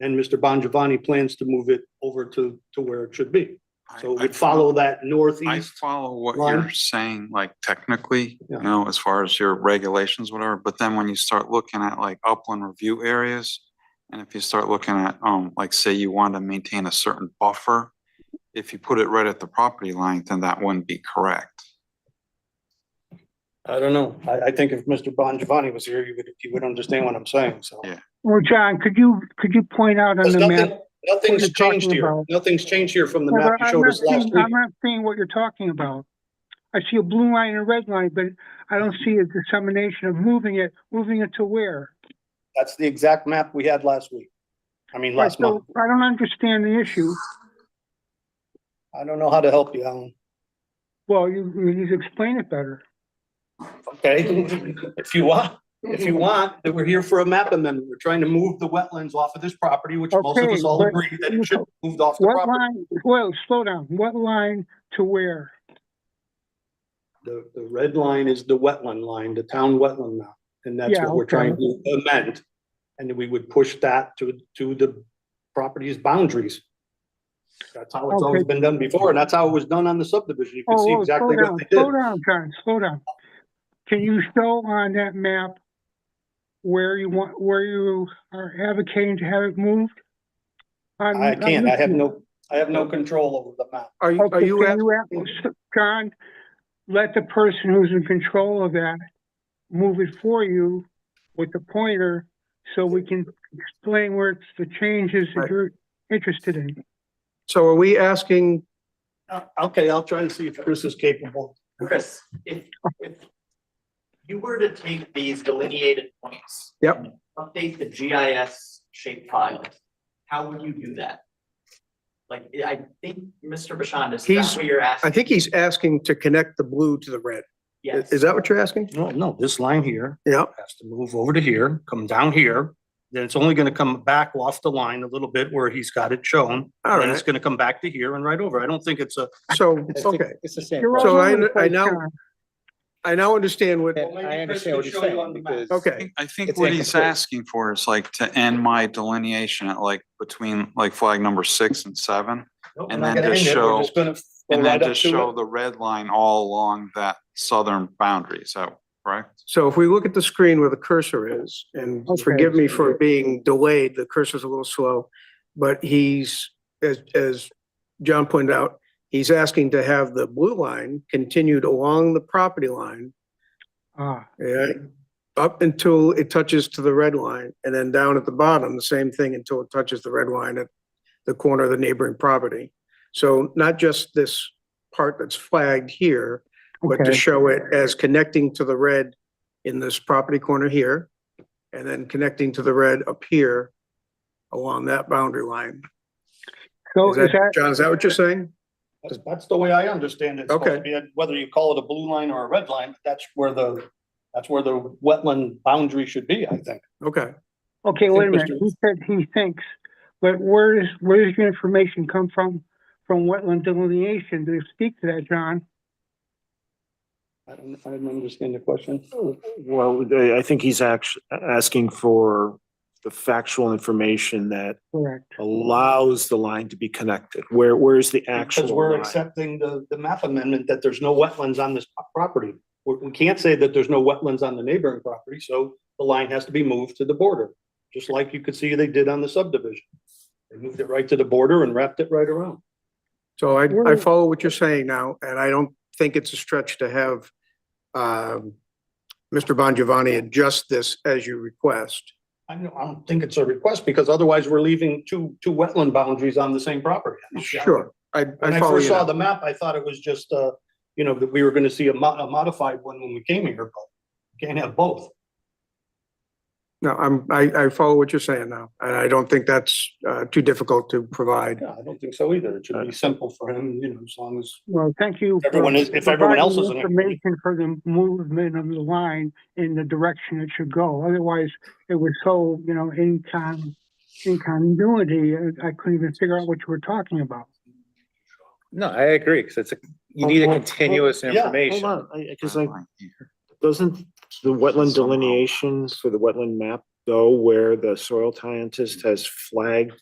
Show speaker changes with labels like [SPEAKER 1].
[SPEAKER 1] And Mr. Bongiovanni plans to move it over to, to where it should be.
[SPEAKER 2] I-
[SPEAKER 1] So
[SPEAKER 2] I
[SPEAKER 1] we'd follow that
[SPEAKER 2] I
[SPEAKER 1] northeast.
[SPEAKER 2] follow what
[SPEAKER 1] line.
[SPEAKER 2] you're saying, like technically,
[SPEAKER 1] Yeah.
[SPEAKER 2] you know, as far as your regulations, whatever, but then when you start looking at like upland review areas. And if you start looking at, um, like say you want to maintain a certain buffer, if you put it right at the property line, then that wouldn't be correct.
[SPEAKER 1] I don't know. I, I think if Mr. Bongiovanni was here, you would, you would understand what I'm saying, so.
[SPEAKER 2] Yeah.
[SPEAKER 3] Well, John, could you, could you point out on
[SPEAKER 1] Because
[SPEAKER 3] the map?
[SPEAKER 1] nothing, nothing's
[SPEAKER 3] you're talking
[SPEAKER 1] changed here.
[SPEAKER 3] about.
[SPEAKER 1] Nothing's changed here from the
[SPEAKER 3] Yeah,
[SPEAKER 1] map
[SPEAKER 3] but
[SPEAKER 1] you
[SPEAKER 3] I'm
[SPEAKER 1] showed
[SPEAKER 3] not
[SPEAKER 1] us last
[SPEAKER 3] seeing-
[SPEAKER 1] week.
[SPEAKER 3] I'm not seeing what you're talking about. I see a blue line and a red line, but I don't see a dissemination of moving it, moving it to where?
[SPEAKER 1] That's the exact map we had last week. I mean, last
[SPEAKER 3] So
[SPEAKER 1] month.
[SPEAKER 3] I don't understand the issue.
[SPEAKER 1] I don't know how to help you, Alan.
[SPEAKER 3] Well, you, you need to explain it better.
[SPEAKER 1] Okay, if you want, if you want, that we're here for a map amendment. We're trying to move the wetlands off of this property, which most of
[SPEAKER 3] Okay,
[SPEAKER 1] us all
[SPEAKER 3] but-
[SPEAKER 1] agree that it should be moved off the
[SPEAKER 3] What
[SPEAKER 1] property.
[SPEAKER 3] line, well, slow down, what line to where?
[SPEAKER 1] The, the red line is the wetland line, the town wetland map, and that's
[SPEAKER 3] Yeah,
[SPEAKER 1] what we're
[SPEAKER 3] okay.
[SPEAKER 1] trying to amend. And we would push that to, to the property's boundaries. That's how it's always
[SPEAKER 3] Okay.
[SPEAKER 1] been done before, and that's how it was done on the subdivision. You can
[SPEAKER 3] Oh,
[SPEAKER 1] see
[SPEAKER 3] oh, slow
[SPEAKER 1] exactly
[SPEAKER 3] down,
[SPEAKER 1] what they did.
[SPEAKER 3] slow down, John, slow down. Can you show on that map where you want, where you are advocating to have it moved? On-
[SPEAKER 1] I
[SPEAKER 3] on
[SPEAKER 1] can't, I have
[SPEAKER 3] YouTube.
[SPEAKER 1] no, I have no control over the map.
[SPEAKER 4] Are you, are
[SPEAKER 3] Okay,
[SPEAKER 4] you,
[SPEAKER 3] can
[SPEAKER 4] ask-
[SPEAKER 3] you ask, John, let the person who's in control of that move it for you with the pointer so we can explain where it's the changes that
[SPEAKER 4] Right.
[SPEAKER 3] you're interested in.
[SPEAKER 4] so are we asking,
[SPEAKER 1] Uh, Okay, I'll try and see if Chris is capable.
[SPEAKER 5] Chris, if, if you were to take these delineated points.
[SPEAKER 4] Yep.
[SPEAKER 5] and Update the GIS shape file, how would you do that? Like, I think Mr. Bashan is
[SPEAKER 4] He's-
[SPEAKER 5] that's what you're asking?
[SPEAKER 4] I think he's asking to connect the blue to the red. I-
[SPEAKER 5] Yes.
[SPEAKER 4] Is that what you're asking?
[SPEAKER 1] No, no, this line here
[SPEAKER 4] Yeah,
[SPEAKER 1] has to move over to here, come down here. Then it's only gonna come back off the line a little bit where he's got it shown.
[SPEAKER 4] all
[SPEAKER 1] And it's
[SPEAKER 4] right.
[SPEAKER 1] gonna come back to here and right over. I don't think it's a.
[SPEAKER 4] So, okay,
[SPEAKER 6] It's the same.
[SPEAKER 3] You're all
[SPEAKER 4] So
[SPEAKER 3] over
[SPEAKER 4] I-
[SPEAKER 3] the
[SPEAKER 4] I
[SPEAKER 3] place,
[SPEAKER 4] now-
[SPEAKER 3] John.
[SPEAKER 4] I now understand what,
[SPEAKER 6] And I understand what he's saying because.
[SPEAKER 2] I
[SPEAKER 4] okay,
[SPEAKER 2] think- I think
[SPEAKER 6] It's
[SPEAKER 2] what he's
[SPEAKER 6] incomplete.
[SPEAKER 2] asking for is like to end my delineation at like between like flag number six and seven. And then just show- And then just show the red line all along that southern boundary. Is that correct?
[SPEAKER 4] so if we look at the screen where the cursor is, and
[SPEAKER 3] Okay.
[SPEAKER 4] forgive me for being delayed, the cursor's a little slow, but he's, as, as John pointed out, he's asking to have the blue line continued along the property line,
[SPEAKER 3] Ah,
[SPEAKER 4] yeah, up until it touches to the red line, and then down at the bottom, the same thing until it touches the red line at the corner of the neighboring property. So not just this part that's flagged here, but to
[SPEAKER 3] Okay.
[SPEAKER 4] show it as connecting to the red in this property corner here, and then connecting to the red up here along that boundary line.
[SPEAKER 3] so
[SPEAKER 4] Is
[SPEAKER 3] Oh, is
[SPEAKER 4] that,
[SPEAKER 3] that,
[SPEAKER 4] John, is that what you're saying?
[SPEAKER 1] That's- That's the way I understand it. It's supposed
[SPEAKER 4] Okay.
[SPEAKER 1] to be a- Whether you call it a blue line or a red line, that's where the, that's where the wetland boundary should be, I think.
[SPEAKER 4] Okay,
[SPEAKER 3] okay, wait a minute,
[SPEAKER 1] Mr.
[SPEAKER 3] he said he thinks, but where is, where does your information come from, from wetland delineation? Do you speak to that, John?
[SPEAKER 1] I don't, I didn't understand the question.
[SPEAKER 7] Well, I, I think he's act, asking for the factual information that
[SPEAKER 3] Correct.
[SPEAKER 7] allows the line to be connected. Where, where's the
[SPEAKER 1] Because
[SPEAKER 7] actual
[SPEAKER 1] we're
[SPEAKER 7] line?
[SPEAKER 1] accepting the, the map amendment that there's no wetlands on this pro- property. We, we can't say that there's no wetlands on the neighboring property, so the line has to be moved to the border. Just like you could see they did on the subdivision. They moved it right to the border and wrapped it right around.
[SPEAKER 4] so I, I
[SPEAKER 3] We're-
[SPEAKER 4] follow what you're saying now, and I don't think it's a stretch to have um, Mr. Bongiovanni adjust this as you request.
[SPEAKER 1] I don't, I don't think it's a request because otherwise we're leaving two, two wetland boundaries on the same property.
[SPEAKER 4] Sure, I,
[SPEAKER 1] When
[SPEAKER 4] I
[SPEAKER 1] I
[SPEAKER 4] follow
[SPEAKER 1] first
[SPEAKER 4] you
[SPEAKER 1] saw
[SPEAKER 4] now.
[SPEAKER 1] the map, I thought it was just, uh, you know, that we were gonna see a mo- a modified one when we came here, but you can't have both.
[SPEAKER 4] No, I'm, I, I follow what you're saying now, and I don't think that's, uh, too difficult to provide.
[SPEAKER 1] Yeah, I don't think so either. It should be simple for him, you know, as long as
[SPEAKER 3] Well, thank you. for
[SPEAKER 1] Everyone is- if everyone else
[SPEAKER 3] providing
[SPEAKER 1] is in agreement.
[SPEAKER 3] Information for the movement of the line in the direction it should go. Otherwise, it was so, you know, incon, incongruity, I- I couldn't even figure out what you were talking about.
[SPEAKER 6] No, I agree, because it's, a you need a continuous
[SPEAKER 1] yeah, hold
[SPEAKER 7] Hold
[SPEAKER 6] information.
[SPEAKER 2] E.
[SPEAKER 7] on, I, cause like,
[SPEAKER 2] Red line here.
[SPEAKER 7] doesn't the wetland
[SPEAKER 2] Somehow.
[SPEAKER 7] delineation for the wetland map though where the soil scientist has flagged